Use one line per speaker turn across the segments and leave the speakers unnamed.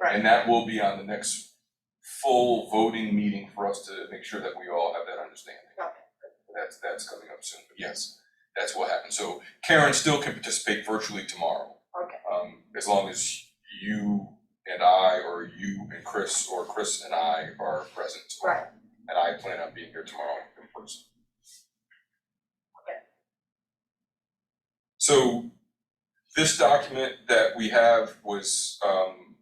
And that will be on the next full voting meeting for us to make sure that we all have that understanding.
Okay.
That's, that's coming up soon, but yes, that's what happened. So Karen still can participate virtually tomorrow.
Okay.
Um, as long as you and I, or you and Chris, or Chris and I are present.
Right.
And I plan on being here tomorrow in person.
Okay.
So this document that we have was, um,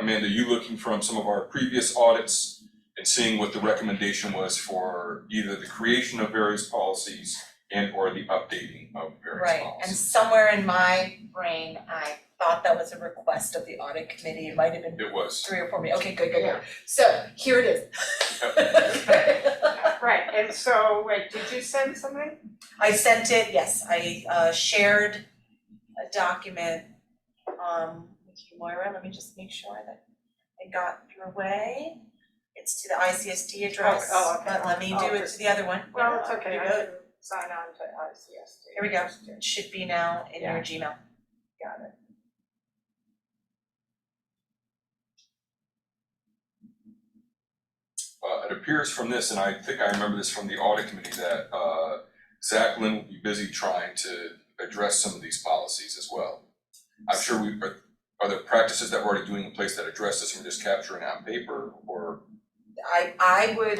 Amanda, you looking from some of our previous audits and seeing what the recommendation was for either the creation of various policies and or the updating of various policies.
Right, and somewhere in my brain, I thought that was a request of the audit committee, it might have been
It was.
three or four minutes, okay, good, good, good. So here it
Uh,
is.
Right, and so, wait, did you send something?
I sent it, yes, I uh shared a document um with you, Moira, let me just make sure that it got your way. It's to the ICSD address,
Oh, oh, okay.
but let me do it to the other one.
Well, it's okay,
You
I
go.
can sign on to ICSD.
Here we go, it should be now in your Gmail.
Got it.
uh, it appears from this, and I think I remember this from the audit committee, that, uh, Zach Lynn will be busy trying to address some of these policies as well. I'm sure we, are, are there practices that we're already doing in place that address this, and we're just capturing it on paper, or,
I I would,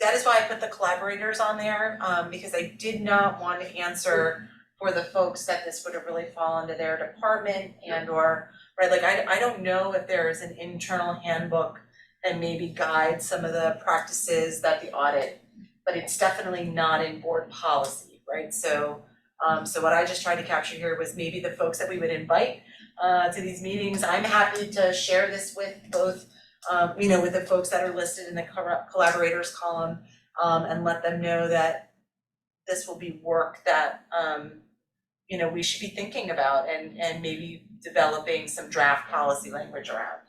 that is why I put the collaborators on there, um because I did not want to answer for the folks that this would have really fallen to their department and or, right, like I I don't know if there is an internal handbook that maybe guides some of the practices that the audit, but it's definitely not in board policy, right? So um so what I just tried to capture here was maybe the folks that we would invite uh to these meetings. I'm happy to share this with both um, you know, with the folks that are listed in the corro- collaborators column, um, and let them know that this will be work that, um, you know, we should be thinking about and, and maybe developing some draft policy language around.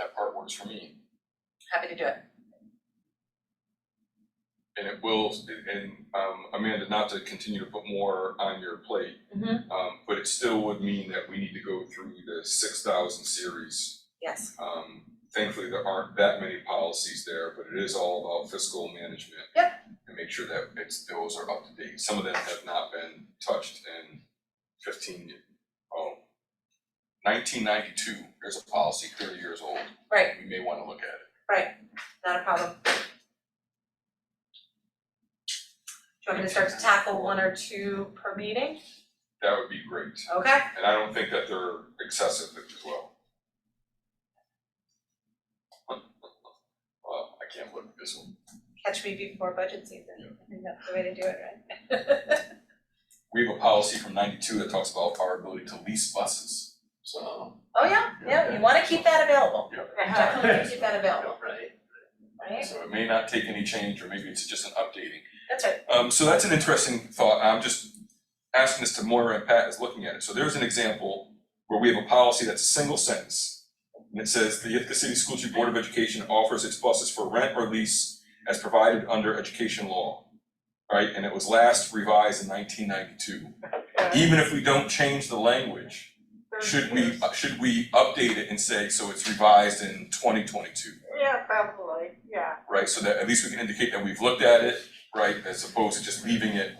that part works for me.
Happy to do it.
And it will, and, um, Amanda, not to continue to put more on your plate.
Mhm.
Um, but it still would mean that we need to go through the six thousand series
Yes.
Um, thankfully, there aren't that many policies there, but it is all about fiscal management.
Yep.
And make sure that it's, those are up to date. Some of them have not been touched in fifteen, ye- oh, nineteen ninety-two, there's a policy thirty years old.
Right.
We may wanna look at it.
Not a problem. Do you want me to start to tackle one or two per meeting?
That would be great,
Okay.
and I don't think that they're excessive as well. Well, I can't look at this one.
Catch me before budget season. I think that's the way to do it, right?
We have a policy from ninety-two that talks about our ability to lease buses, so.
Oh, yeah, yeah, you wanna keep that available. Definitely keep that available,
Right.
right?
So it may not take any change, or maybe it's just an updating.
That's right.
Um, so that's an interesting thought, I'm just asking this to Moira and Pat is looking at it. So there's an example where we have a policy that's a single sentence. And it says, the Ithaca City School District Board of Education offers its buses for rent or lease as provided under education law. Right, and it was last revised in nineteen ninety-two. Even if we don't change the language, should we, uh, should we update it and say, so it's revised in twenty twenty-two?
Yeah, probably, yeah.
right? So that at least we can indicate that we've looked at it, right, as opposed to just leaving it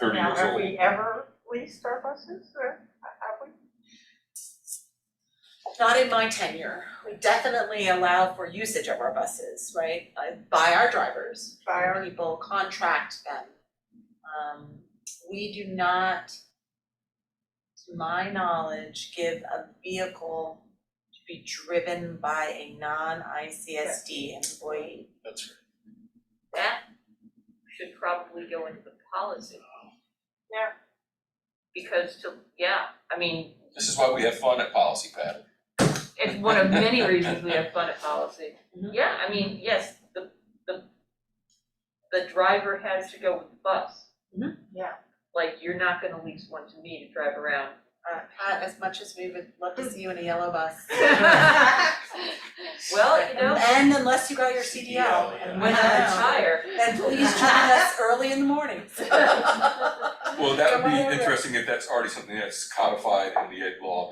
thirty
Now,
years
have
old.
we ever leased our buses, or have we?
Not in my tenure. We definitely allow for usage of our buses, right, uh, by our drivers.
By our-
People contract them. Um, we do not, to my knowledge, give a vehicle to be driven by a non-ICSD employee.
That's right.
That should probably go into the policy.
Yeah.
Because to, yeah, I mean,
This is why we have fun at Policy Pad.
it's one of many reasons we have fun at policy.
Mm-hmm.
Mhm.
Yeah, I mean, yes, the, the, the driver has to go with the bus.
Mhm.
Mm-hmm. Yeah.
Like, you're not gonna lease one to me to drive around.
Uh, Pat, as much as we would love to see you in a yellow bus.
Well, you know,
And unless you got your CDL, and
when
when
I
I,
retire,
then please join us early in the morning.
Well, that would
Come on over.
be interesting if that's already something that's codified in the ed law,